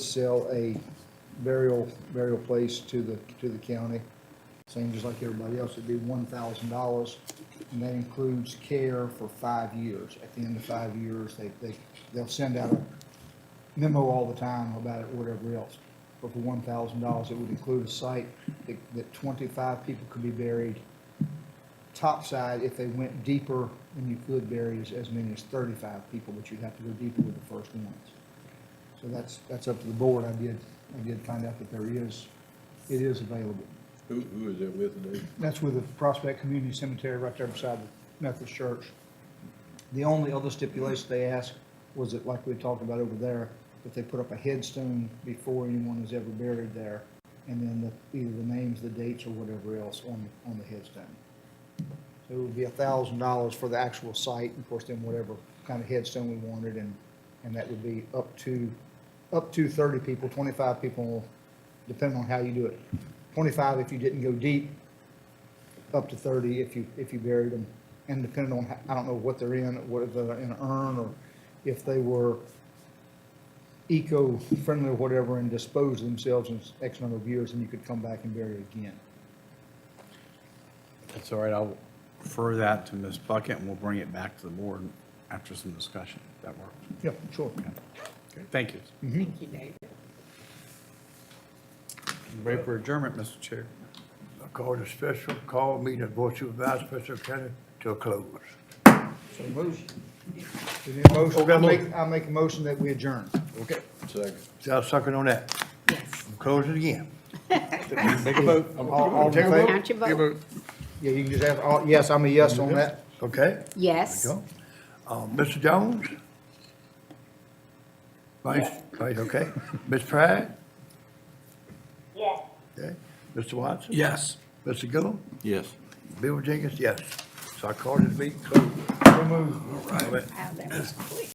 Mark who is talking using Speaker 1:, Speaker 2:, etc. Speaker 1: sell a burial, burial place to the, to the county, same just like everybody else, it'd be one thousand dollars. And that includes care for five years. At the end of five years, they, they, they'll send out a memo all the time about it, whatever else. But for one thousand dollars, it would include a site that, that twenty-five people could be buried topside, if they went deeper, then you could bury as, as many as thirty-five people, but you'd have to go deeper with the first ones. So that's, that's up to the board. I did, I did find out that there is, it is available.
Speaker 2: Who, who is that with today?
Speaker 1: That's with the Prospect Community Cemetery right there beside the Methodist Church. The only other stipulation they asked was that, like we talked about over there, that they put up a headstone before anyone was ever buried there, and then the, either the names, the dates, or whatever else on, on the headstone. So it would be a thousand dollars for the actual site, and of course, then whatever kind of headstone we wanted, and, and that would be up to, up to thirty people, twenty-five people, depending on how you do it. Twenty-five if you didn't go deep, up to 30 if you, if you buried them. And depending on, ho- I don't know what they're in, whether they're in an urn or if they were eco-friendly or whatever and disposed themselves in X number of years, then you could come back and bury it again.
Speaker 3: That's all right, I'll refer that to Ms. Bucket, and we'll bring it back to the board after some discussion. That works.
Speaker 1: Yeah, sure.
Speaker 3: Thank you.
Speaker 4: Thank you, David.
Speaker 3: Ready for adjournment, Mr. Chair?
Speaker 5: I call the special call meeting of Board of Supervisors, Special County, to a close.
Speaker 1: So motion. We need a motion.
Speaker 5: Oh, got a
Speaker 1: I make-
Speaker 5: motion.
Speaker 1: I make a motion that we adjourn.
Speaker 5: Okay.
Speaker 2: Second.
Speaker 5: Is there a second on that?
Speaker 4: Yes.
Speaker 5: Close it again.
Speaker 3: Take a vote.
Speaker 1: All- all in
Speaker 5: Take a vote.
Speaker 1: favor?
Speaker 4: Count your vote.
Speaker 1: Yeah, you can just ask, all- yes, I'm a yes on that.
Speaker 5: Okay?
Speaker 4: Yes.
Speaker 5: Go. Uh, Mr. Jones? Vice, Vice, okay. Ms. Pride?
Speaker 6: Yes.
Speaker 5: Okay. Mr. Watson?
Speaker 3: Yes.
Speaker 5: Mr. Gillum?
Speaker 2: Yes.
Speaker 5: Bill Jenkins, yes. So I call this meeting closed.
Speaker 1: So moved.
Speaker 4: Wow, that was quick.